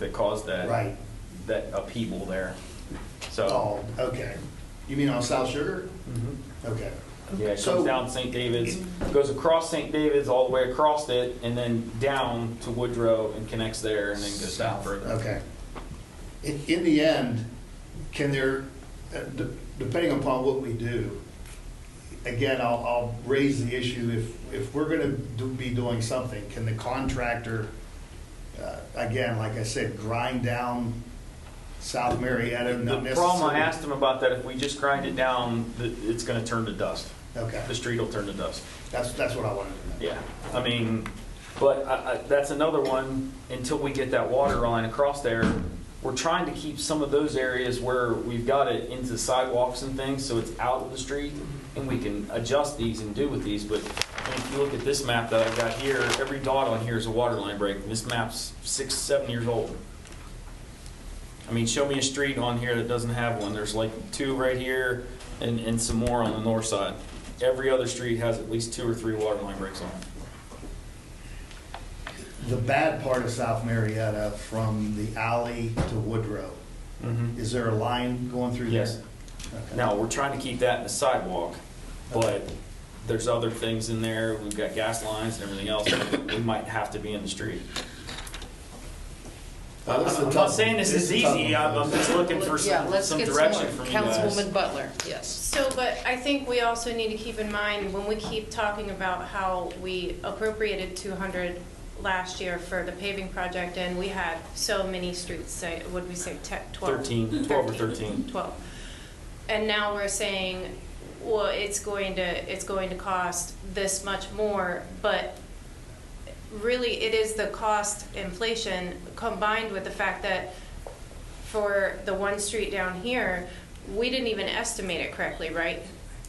that caused that, Right. that upheaval there. So, mm-hmm. Oh, okay. You mean on South Sugar? Okay. yeah, it So- comes down St. David's, goes across St. David's, all the way across it, and then down to Woodrow and connects there and then goes down further. Okay. In, in the end, can there, uh, de- depending upon what we do, again, I'll, I'll raise the issue, if, if we're gonna do, be doing something, can the contractor, uh, again, like I said, grind down South Marietta, The not necessarily? problem, I asked him about that, if we just grind it down, th- it's gonna turn to dust. Okay, The street will turn to dust. that's, that's what I wanted to know. Yeah, I mean, but I, I, that's another one, until we get that water line across there, we're trying to keep some of those areas where we've got it into sidewalks and things, so it's out of the street, and we can adjust these and do with these, but if you look at this map that I've got here, every dot on here is a water line break, and this map's six, seven years old. I mean, show me a street on here that doesn't have one, there's like two right here, and, and some more on the north side. Every other street has at least two or three water line breaks on it. The bad part of South Marietta, from the alley to Woodrow, is there a line going through there? Yes. Okay. Now, we're trying to keep that in the sidewalk, but there's other things in there. We've got gas lines and everything else. that We might have to be in the street. Now, Uh, this is a I'm tough not one. saying this is a tough easy. one. I'm I'm just looking for Yeah, some, let's some get direction from more. you guys. Councilwoman Butler, yes. So, but I think we also need to keep in mind, when we keep talking about how we appropriated 200 last year for the paving project, and we had so many streets, say, would we say te- 12? 13, 12 or 13. 12. And now we're saying, well, it's going to, it's going to cost this much more, but really, it is the cost inflation combined with the fact that for the one street down here, we didn't even estimate it correctly, right?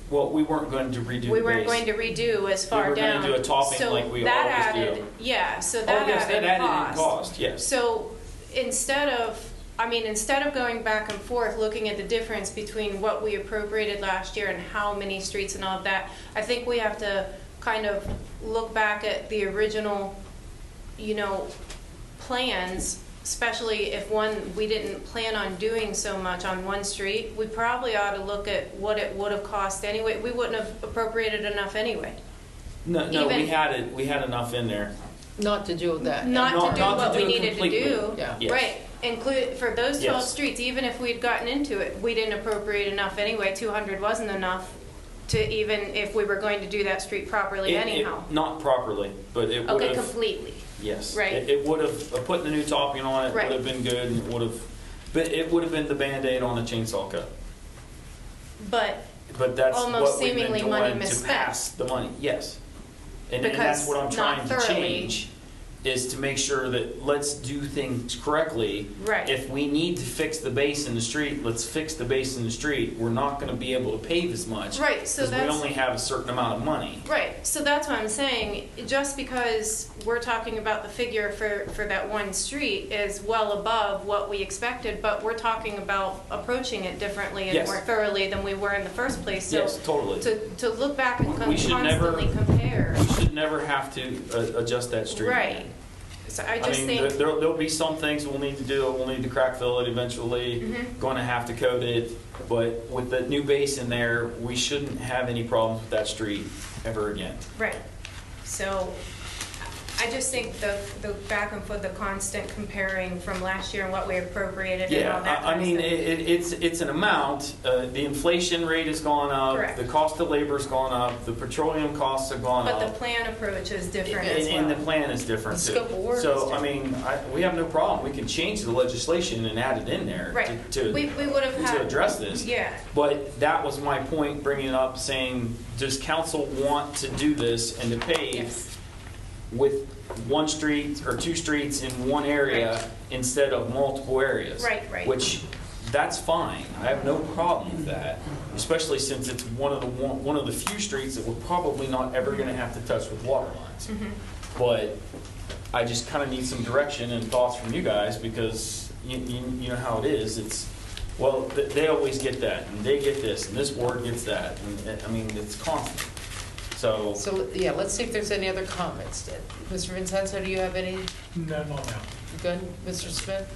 Well, we weren't going to redo the base. We weren't going to redo as We far were gonna down. do a topping So like we that always do. added- Yeah, so Oh, that yes, that added added in cost. cost, yes. So instead of, I mean, instead of going back and forth, looking at the difference between what we appropriated last year and how many streets and all of that, I think we have to kind of look back at the original, you know, plans, especially if one, we didn't plan on doing so much on one street, we probably ought to look at what it would have cost anyway. We wouldn't have appropriated enough anyway. No, no, we even- had it, we had enough in there. Not to do that. Not- Not to do not to what do we it needed to completely. do. Yeah. Yes. Right, include, for those twelve Yes. streets, even if we'd gotten into it, we didn't appropriate enough anyway, two hundred wasn't enough to even, if we were going to do that street properly It- it- anyhow. Not properly, but it would Okay, have. completely. Yes. Right. It, it would have, uh, putting the new topping on it Right. would have been good and it would have, but it would have been the Band-Aid on a chainsaw cut. But But that's Almost what we've been seemingly doing money to misspent. pass the money, yes. And, and that's Because what I'm trying not to thoroughly. change, is to make sure that let's do things correctly. Right. If we need to fix the base in the street, let's fix the base in the street. We're not gonna be able to pave as much. Right, so Because that's- we only have a certain amount of money. Right, so that's what I'm saying, just because we're talking about the figure for, for that one street is well above what we expected, but we're talking about approaching it differently and Yes. more thoroughly than we were in the first place, so. Yes, totally. To, to look back and con- We should never- constantly compare, We should never have to uh, adjust that street. right. So I I just mean, there, think, there'll there'll be some things we'll need to do. We'll need to crack fill it eventually. Mm-hmm. Going to have to coat it, but with the new base in there, we shouldn't have any problems with that street ever again. right, so, I just think the, the back and forth, the constant comparing from last year and what we appropriated and Yeah, all that I, I kind of mean, stuff. it, it- it's, it's an amount, uh, the inflation rate has gone up, Correct. the cost of labor's gone up, the petroleum costs have gone But the up. plan approach is different And, as well. and uh, the plan is different The too. scope of work is So, I mean, I, we have no problem, we can change the legislation and add it in there Right. to, We, to we would have had. to address this. Yeah, But that was my point, bringing it up, saying, does council want to do this and to pave Yes. with one street or two streets in one area instead of multiple areas? Right, right. Which, that's fine. I have no problem with that, especially since it's one of the, one one of the few streets that we're probably not ever going to have to touch with water lines. Mm-hmm. But I just kind of need some direction and thoughts from you guys because you, you, you know how it is. It's, well, th- they always get that and they get this and this ward gets that. And, and, I mean, it's constant. So, So, yeah, let's see if there's any other comments. Mr. Vincenzo, do you have any? No, not now. Good, Mr. Smith?